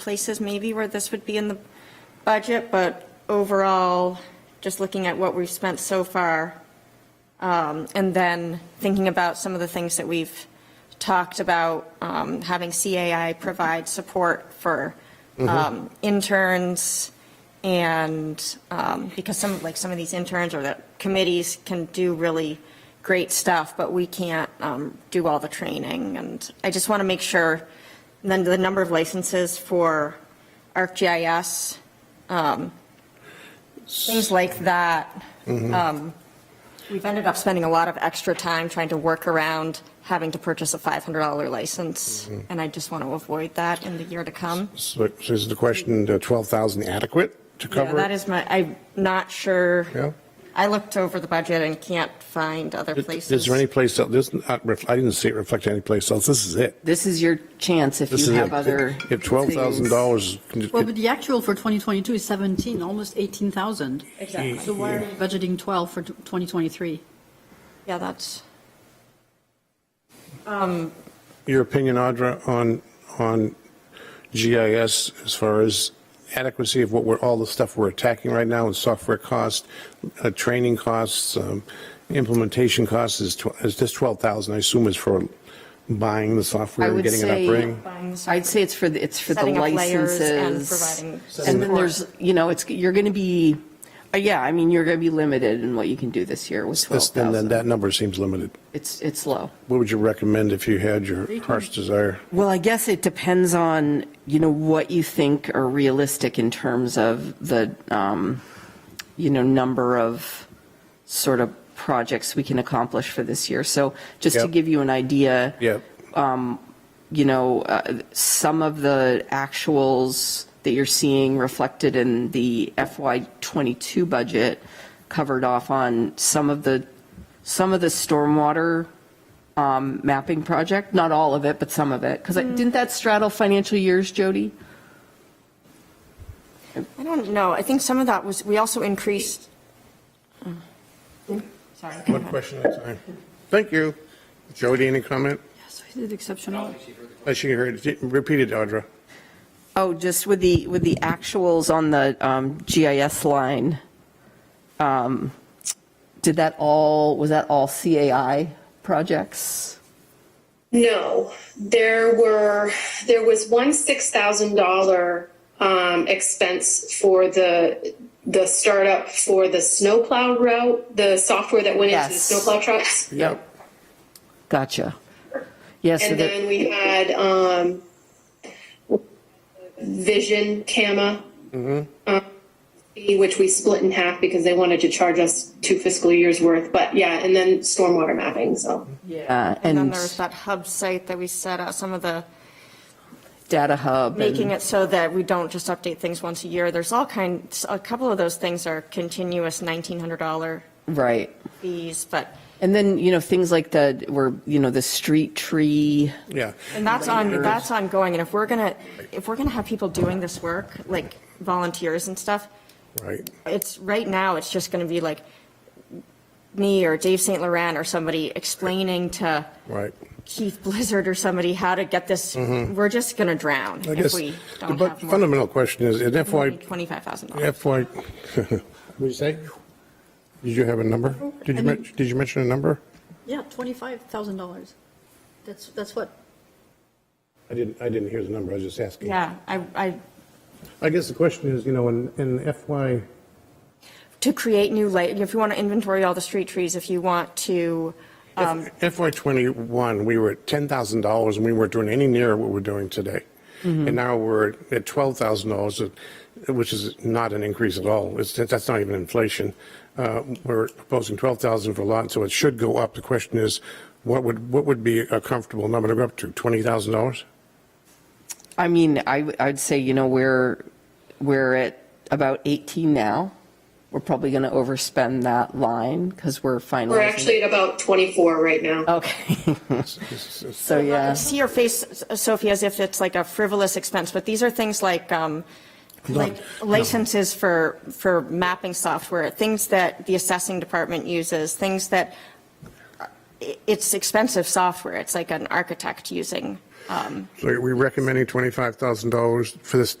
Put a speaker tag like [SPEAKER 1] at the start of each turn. [SPEAKER 1] places maybe where this would be in the budget, but overall, just looking at what we've spent so far, um, and then thinking about some of the things that we've talked about, um, having CAI provide support for um, interns and, um, because some, like, some of these interns or the committees can do really great stuff, but we can't um, do all the training. And I just want to make sure, and then the number of licenses for ArcGIS, um, things like that. Um, We've ended up spending a lot of extra time trying to work around having to purchase a $500 license,
[SPEAKER 2] Mm-hmm.
[SPEAKER 1] and I just want to avoid that in the year to come.
[SPEAKER 2] So so is the question, uh, 12,000 adequate to
[SPEAKER 1] Yeah,
[SPEAKER 2] cover?
[SPEAKER 1] That is my, I'm not sure.
[SPEAKER 2] Yeah.
[SPEAKER 1] I looked over the budget and can't find other places.
[SPEAKER 2] Is there any place else, there's not ref- I didn't see it reflected any place else, this is it.
[SPEAKER 3] This is your chance if
[SPEAKER 2] This
[SPEAKER 3] you
[SPEAKER 2] is
[SPEAKER 3] have
[SPEAKER 2] it.
[SPEAKER 3] other.
[SPEAKER 2] If $12,000,
[SPEAKER 4] Well,
[SPEAKER 2] can-
[SPEAKER 4] but the actual for 2022 is 17, almost 18,000.
[SPEAKER 1] Exactly.
[SPEAKER 4] So why are we budgeting 12 for 2023?
[SPEAKER 1] Yeah, that's,
[SPEAKER 2] your opinion, Audra, on, on GIS as far as adequacy of what we're, all the stuff we're attacking right now, and software cost, uh, training costs, um, implementation costs, is tw- is this 12,000, I assume is for buying the software
[SPEAKER 3] I
[SPEAKER 2] and
[SPEAKER 3] would
[SPEAKER 2] getting it up
[SPEAKER 3] say-
[SPEAKER 2] running?
[SPEAKER 3] I'd say it's for, the it's for the
[SPEAKER 1] Setting up layers
[SPEAKER 3] licenses.
[SPEAKER 1] and providing
[SPEAKER 3] And then
[SPEAKER 1] support.
[SPEAKER 3] there's, you know, it's, you're going to be, uh, yeah, I mean, you're going to be limited in what you can do this year with
[SPEAKER 2] This- Then then
[SPEAKER 3] 12,000.
[SPEAKER 2] that number seems limited.
[SPEAKER 3] It's, it's low.
[SPEAKER 2] What would you recommend if you had your heart's desire?
[SPEAKER 3] Well, I guess it depends on, you know, what you think are realistic in terms of the, um, you know, number of sort of projects we can accomplish for this year. So just to
[SPEAKER 2] Yep.
[SPEAKER 3] give you an idea.
[SPEAKER 2] Yep.
[SPEAKER 3] you know, uh, some of the actuals that you're seeing reflected in the FY '22 budget covered off on some of the, some of the stormwater um, mapping project, not all of it, but some of it, because didn't that straddle financial years, Jody?
[SPEAKER 1] I don't know, I think some of that was, we also increased, oh, sorry. go
[SPEAKER 2] One
[SPEAKER 1] ahead.
[SPEAKER 2] question at a time. Thank you. Jody, any comment?
[SPEAKER 4] Yes, we did exceptional.
[SPEAKER 2] I should heard, repeat it, Audra.
[SPEAKER 3] Oh, just with the, with the actuals on the um, GIS line. um, Did that all, was that all CAI projects?
[SPEAKER 5] No, there were, there was one six thousand dollar um, expense for the the startup for the snowplow route, the software that went into the
[SPEAKER 3] Yes.
[SPEAKER 5] snowplow trucks.
[SPEAKER 3] Yep. Gotcha. Yes, so
[SPEAKER 5] And
[SPEAKER 3] that,
[SPEAKER 5] then we had um, Vision Cama,
[SPEAKER 3] Mm-hmm.
[SPEAKER 5] um, fee, which we split in half because they wanted to charge us two fiscal years worth. But yeah, and then stormwater mapping. So
[SPEAKER 3] yeah,
[SPEAKER 1] And then
[SPEAKER 3] and
[SPEAKER 1] there was that hub site that we set up, some of the
[SPEAKER 3] Data Hub
[SPEAKER 2] Mm-hmm.
[SPEAKER 1] making
[SPEAKER 3] and
[SPEAKER 1] it so that we don't just update things once a year. There's all kinds, a couple of those things are continuous $1,900
[SPEAKER 3] right.
[SPEAKER 1] fees, but,
[SPEAKER 3] And then, you know, things like the, where, you know, the street tree.
[SPEAKER 2] Yeah.
[SPEAKER 1] and that's on, that's ongoing. And if we're going to, if we're going to have people doing this work, like volunteers and stuff,
[SPEAKER 2] Right.
[SPEAKER 1] it's, right now, it's just going to be like me or Dave St. Laurent or somebody explaining to
[SPEAKER 2] Right.
[SPEAKER 1] Keith Blizzard or somebody how to get this, we're just going to drown
[SPEAKER 2] Mm-hmm. I
[SPEAKER 1] if
[SPEAKER 2] guess,
[SPEAKER 1] we
[SPEAKER 2] the
[SPEAKER 1] don't
[SPEAKER 2] bu-
[SPEAKER 1] have more.
[SPEAKER 2] fundamental question is, in FY,
[SPEAKER 1] $25,000.
[SPEAKER 2] FY, what'd you say? Did you have a number? Did you,
[SPEAKER 4] I
[SPEAKER 2] men-
[SPEAKER 4] mean-
[SPEAKER 2] did you mention a number?
[SPEAKER 4] Yeah, $25,000. That's, that's what,
[SPEAKER 2] I didn't, I didn't hear the number, I was just asking.
[SPEAKER 1] Yeah, I, I
[SPEAKER 2] I guess the question is, you know, in, in FY,
[SPEAKER 1] to create new, la- if you want to inventory all the street trees, if you want to,
[SPEAKER 2] FY '21, we were at $10,000 and we weren't doing any near what we're doing today. And now we're at $12,000, uh, which is not an increase at all. It's, that's not even inflation. Uh, We're proposing 12,000 for a lot, so it should go up. The question is, what would, what would be a comfortable number to go up to? $20,000?
[SPEAKER 3] I mean, I, I'd say, you know, we're, we're at about 18 now. We're probably going to overspend that line because we're finalizing.
[SPEAKER 5] we're actually at about twenty four right now.
[SPEAKER 3] Okay, so
[SPEAKER 1] I
[SPEAKER 3] yeah,
[SPEAKER 1] see your face, Sophie, as if it's like a frivolous expense, but these are things like, um, like licenses for, for mapping software, things that the assessing department uses, things that, i- it's expensive software, it's like an architect using.
[SPEAKER 2] So are we recommending $25,000 for this